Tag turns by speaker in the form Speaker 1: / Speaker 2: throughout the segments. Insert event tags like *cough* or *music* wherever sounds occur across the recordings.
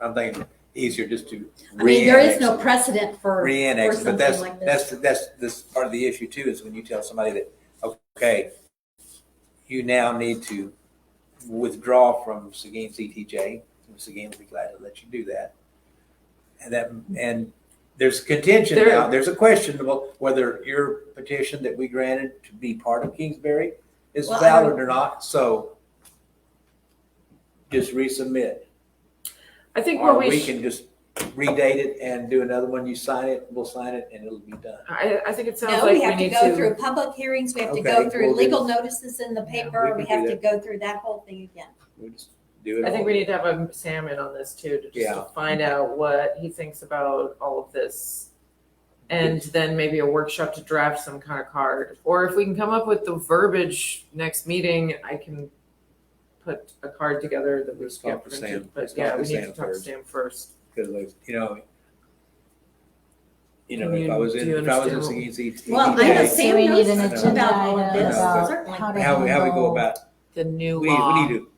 Speaker 1: I'm thinking easier just to.
Speaker 2: I mean, there is
Speaker 1: re-annex
Speaker 2: no
Speaker 1: it.
Speaker 2: precedent for, for
Speaker 1: Re-annex, it. but
Speaker 2: something
Speaker 1: that's,
Speaker 2: like this.
Speaker 1: that's, that's, this part of the issue too, is when you tell somebody that, okay, you now need to withdraw from Seguin CTJ, and Seguin will be glad to let you do that. And that, and there's contention
Speaker 3: There-
Speaker 1: now, there's a question about whether your petition that we granted to be part of Kingsbury is
Speaker 2: Well, I
Speaker 1: valid or not, so just resubmit.
Speaker 3: I think
Speaker 1: Or
Speaker 3: what we,
Speaker 1: we
Speaker 3: sh-
Speaker 1: can just redate it and do another one. You sign it, we'll sign it, and it'll be done.
Speaker 3: I, I think it sounds
Speaker 2: No,
Speaker 3: like
Speaker 2: we
Speaker 3: we
Speaker 2: have to
Speaker 3: need
Speaker 2: go
Speaker 3: to,
Speaker 2: through public hearings, we have to
Speaker 1: Okay,
Speaker 2: go
Speaker 1: we'll
Speaker 2: through
Speaker 1: do
Speaker 2: legal notices in the paper,
Speaker 1: we
Speaker 2: we
Speaker 1: can
Speaker 2: have
Speaker 1: do
Speaker 2: to go through that whole thing again.
Speaker 1: We just do it.
Speaker 3: I think
Speaker 1: all.
Speaker 3: we need to have a Sam in on this too, to just
Speaker 1: Yeah.
Speaker 3: to find out what he thinks about all of this. And then maybe a workshop to draft some kind of card, or if we can come up with the verbiage next meeting, I can put a card together that we
Speaker 1: Let's
Speaker 3: can
Speaker 1: talk to
Speaker 3: print.
Speaker 1: Sam.
Speaker 3: But
Speaker 1: Let's
Speaker 3: yeah,
Speaker 1: talk
Speaker 3: we
Speaker 1: to
Speaker 3: need to
Speaker 1: Sam
Speaker 3: talk to
Speaker 1: first.
Speaker 3: Sam first.
Speaker 1: because, like, you know, you know,
Speaker 3: Can
Speaker 1: if I
Speaker 3: you-
Speaker 1: was
Speaker 3: do
Speaker 1: in,
Speaker 3: you
Speaker 1: if I was in
Speaker 3: understand
Speaker 1: Seguin's ET,
Speaker 2: Well,
Speaker 4: I
Speaker 2: I know
Speaker 4: know,
Speaker 1: how
Speaker 4: so we
Speaker 2: Sam
Speaker 4: need
Speaker 2: knows
Speaker 4: an
Speaker 2: about all
Speaker 4: agenda
Speaker 2: of
Speaker 4: item
Speaker 2: this,
Speaker 4: about
Speaker 2: certainly.
Speaker 4: how
Speaker 1: we
Speaker 4: to
Speaker 1: how we go
Speaker 4: handle-
Speaker 1: about.
Speaker 5: the new
Speaker 1: We we
Speaker 5: law,
Speaker 1: need to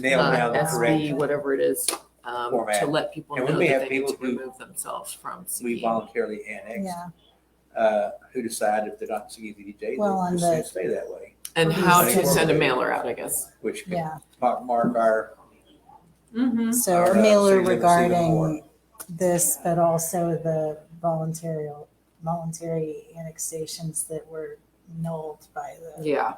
Speaker 1: nail
Speaker 5: uh,
Speaker 1: down the
Speaker 5: SB,
Speaker 1: correct.
Speaker 5: whatever it is, um, to
Speaker 1: Format.
Speaker 5: let people
Speaker 1: And
Speaker 5: know
Speaker 1: when
Speaker 5: that
Speaker 1: we have
Speaker 5: they need
Speaker 1: people
Speaker 5: to
Speaker 1: who-
Speaker 5: remove themselves from
Speaker 1: We
Speaker 5: CBE.
Speaker 1: voluntarily annexed.
Speaker 4: Yeah,
Speaker 1: Uh, who decide if they're not Seguin's ET, they
Speaker 4: Well, and
Speaker 1: just
Speaker 4: the-
Speaker 1: say stay that way,
Speaker 5: And how
Speaker 1: Right.
Speaker 5: to send a mailer out, I guess.
Speaker 1: which could
Speaker 4: yeah.
Speaker 1: mark mark our
Speaker 3: Mm-hmm.
Speaker 4: So
Speaker 1: Or,
Speaker 4: a
Speaker 1: uh,
Speaker 4: mailer
Speaker 1: City Limits even more.
Speaker 4: regarding this, but also the voluntary, voluntary annexations that were nulled by the.
Speaker 5: Yeah.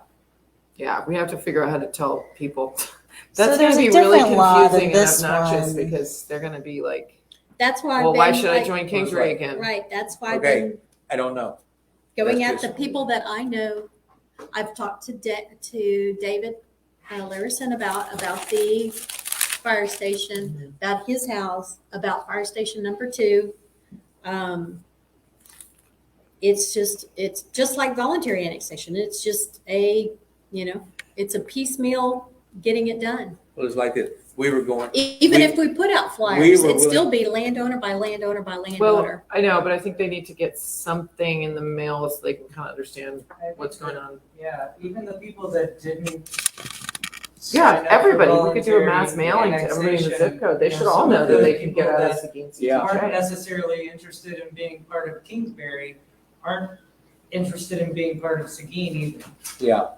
Speaker 5: Yeah, we have to figure out how to tell people. *laughs*
Speaker 4: So
Speaker 5: That's
Speaker 4: there's
Speaker 5: gonna
Speaker 4: a
Speaker 5: be really
Speaker 4: different law than
Speaker 5: confusing and
Speaker 4: this
Speaker 5: obnoxious
Speaker 4: one.
Speaker 5: because they're gonna be like,
Speaker 2: That's why. I've
Speaker 5: well, why
Speaker 2: been,
Speaker 5: should I
Speaker 2: like-
Speaker 5: join Kingsbury
Speaker 1: Right.
Speaker 5: again?
Speaker 2: Right, that's why I've
Speaker 1: Okay.
Speaker 2: been
Speaker 1: I don't know.
Speaker 2: going
Speaker 1: That's
Speaker 2: at the
Speaker 1: just-
Speaker 2: people that I know, I've talked to Da- to David uh, Larison about, about the fire
Speaker 1: Mm-hmm.
Speaker 2: station, about his house, about fire station number two. Um, It's just, it's just like voluntary annexation. It's just a, you know, it's a piecemeal getting it done.
Speaker 1: Well, it's like this. We were going.
Speaker 2: E- Even
Speaker 1: We-
Speaker 2: if we put out
Speaker 1: we
Speaker 2: flyers,
Speaker 1: were
Speaker 2: it'd still be landowner by landowner by
Speaker 5: Well,
Speaker 2: landowner.
Speaker 5: I know, but I think they need to get something in the mail so they can kind of understand what's going on.
Speaker 6: Yeah, even the people that didn't.
Speaker 5: Yeah,
Speaker 6: sign up for
Speaker 5: everybody, we could do a mass
Speaker 6: voluntary
Speaker 5: mailing to everybody in the
Speaker 6: annexation
Speaker 5: zip code. They
Speaker 6: Yeah,
Speaker 5: should all
Speaker 6: some
Speaker 5: know
Speaker 6: of
Speaker 5: that
Speaker 6: the
Speaker 5: they can get
Speaker 6: people
Speaker 5: out of
Speaker 6: that
Speaker 5: Seguin's.
Speaker 1: Yeah.
Speaker 6: Aren't necessarily interested in being part of Kingsbury, aren't interested in being part of Seguin either.
Speaker 1: Yeah.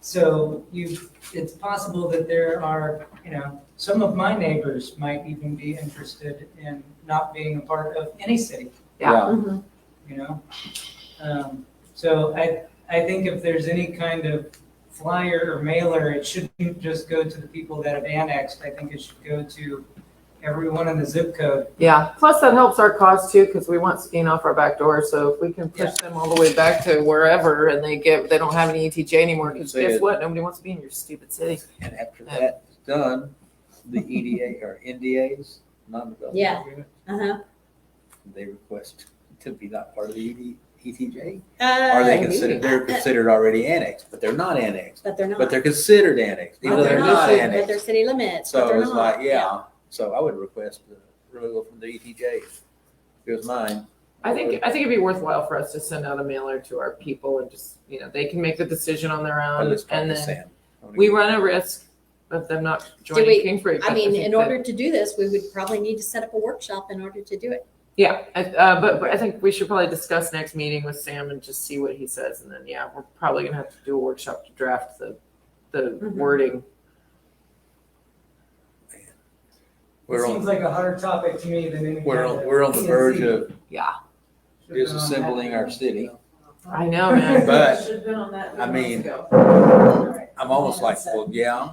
Speaker 6: So you, it's possible that there are, you know, some of my neighbors might even be interested in not being a part of any city,
Speaker 5: Yeah.
Speaker 2: Mhm.
Speaker 6: you know? Um, So I, I think if there's any kind of flyer or mailer, it shouldn't just go to the people that have annexed. I think it should go to everyone in the zip code.
Speaker 5: Yeah, plus that helps our cause too, because we want skiing off our back door, so if we can push them all the way back to wherever and they get, they don't have any ETJ anymore, because
Speaker 1: Say
Speaker 5: guess
Speaker 1: it.
Speaker 5: what, nobody wants to be in your stupid city.
Speaker 1: And after that's done, the EDA or NDAs, non-development
Speaker 2: Yeah.
Speaker 1: agreement,
Speaker 2: Uh-huh.
Speaker 1: they request to be not part of the E ED, ETJ.
Speaker 2: Uh,
Speaker 1: Are they
Speaker 5: maybe.
Speaker 1: considered, they're
Speaker 2: Uh,
Speaker 1: considered already annexed, but they're not annexed,
Speaker 2: But they're not.
Speaker 1: but they're considered annexed, even though
Speaker 2: But
Speaker 1: they're
Speaker 2: they're
Speaker 1: not
Speaker 2: not, but they're
Speaker 1: annexed.
Speaker 2: city limits, but
Speaker 1: So
Speaker 2: they're
Speaker 1: it's
Speaker 2: not.
Speaker 1: like, yeah, so I would request the removal from the ETJ. If it was mine.
Speaker 5: I think, I think it'd be worthwhile for us to send out a mailer to our people and just, you know, they can make the decision on their
Speaker 1: I would
Speaker 5: own,
Speaker 1: just talk
Speaker 5: and
Speaker 1: to
Speaker 5: then
Speaker 1: Sam. I wanna
Speaker 5: we
Speaker 1: get-
Speaker 5: run a risk of them not
Speaker 2: we-
Speaker 5: joining Kingsbury.
Speaker 2: I
Speaker 5: but
Speaker 2: mean,
Speaker 5: think
Speaker 2: in
Speaker 5: that-
Speaker 2: order to do this, we would probably need to set up a workshop in order to do it.
Speaker 5: Yeah, I- uh, but, but I think we should probably discuss next meeting with Sam and just see what he says, and then, yeah, we're probably gonna have to do a workshop to draft the, the
Speaker 2: Mhm.
Speaker 5: wording.
Speaker 6: It
Speaker 1: We're
Speaker 6: seems
Speaker 1: on,
Speaker 6: like a hotter topic to me than any.
Speaker 1: we're
Speaker 6: kind
Speaker 1: on,
Speaker 6: of
Speaker 1: we're on the verge
Speaker 6: TNC.
Speaker 1: of
Speaker 5: Yeah,
Speaker 1: disassembling our city.
Speaker 5: I know, man.
Speaker 1: But,
Speaker 3: Should've been on that
Speaker 1: I
Speaker 3: months
Speaker 1: mean,
Speaker 3: ago.
Speaker 1: I'm almost like, well, yeah,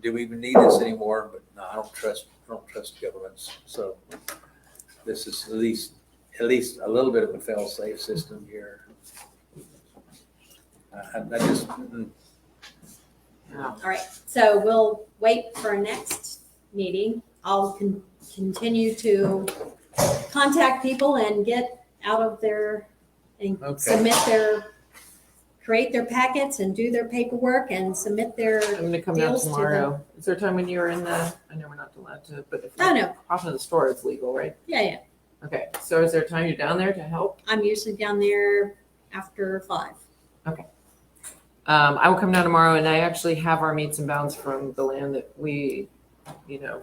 Speaker 1: do we even need this anymore? But no, I don't trust, I don't trust governments, so this is at least, at least a little bit of a fail-safe system here. I, I just, mm,
Speaker 2: All right, so we'll wait for our next meeting. I'll con- continue to contact people and get out of their, and
Speaker 1: Okay.
Speaker 2: submit their, create their packets and do their paperwork and submit their,
Speaker 5: I'm gonna come down
Speaker 2: Deals to the-
Speaker 5: tomorrow. Is there a time when you were in the, I know we're not allowed to, but if
Speaker 2: no,
Speaker 5: you're
Speaker 2: no,
Speaker 5: off in the store, it's legal, right?
Speaker 2: yeah, yeah.
Speaker 5: Okay, so is there a time you're down there to help?
Speaker 2: I'm usually down there after five.
Speaker 5: Um, I will come down tomorrow and I actually have our meets and bounds from the land that we, you know,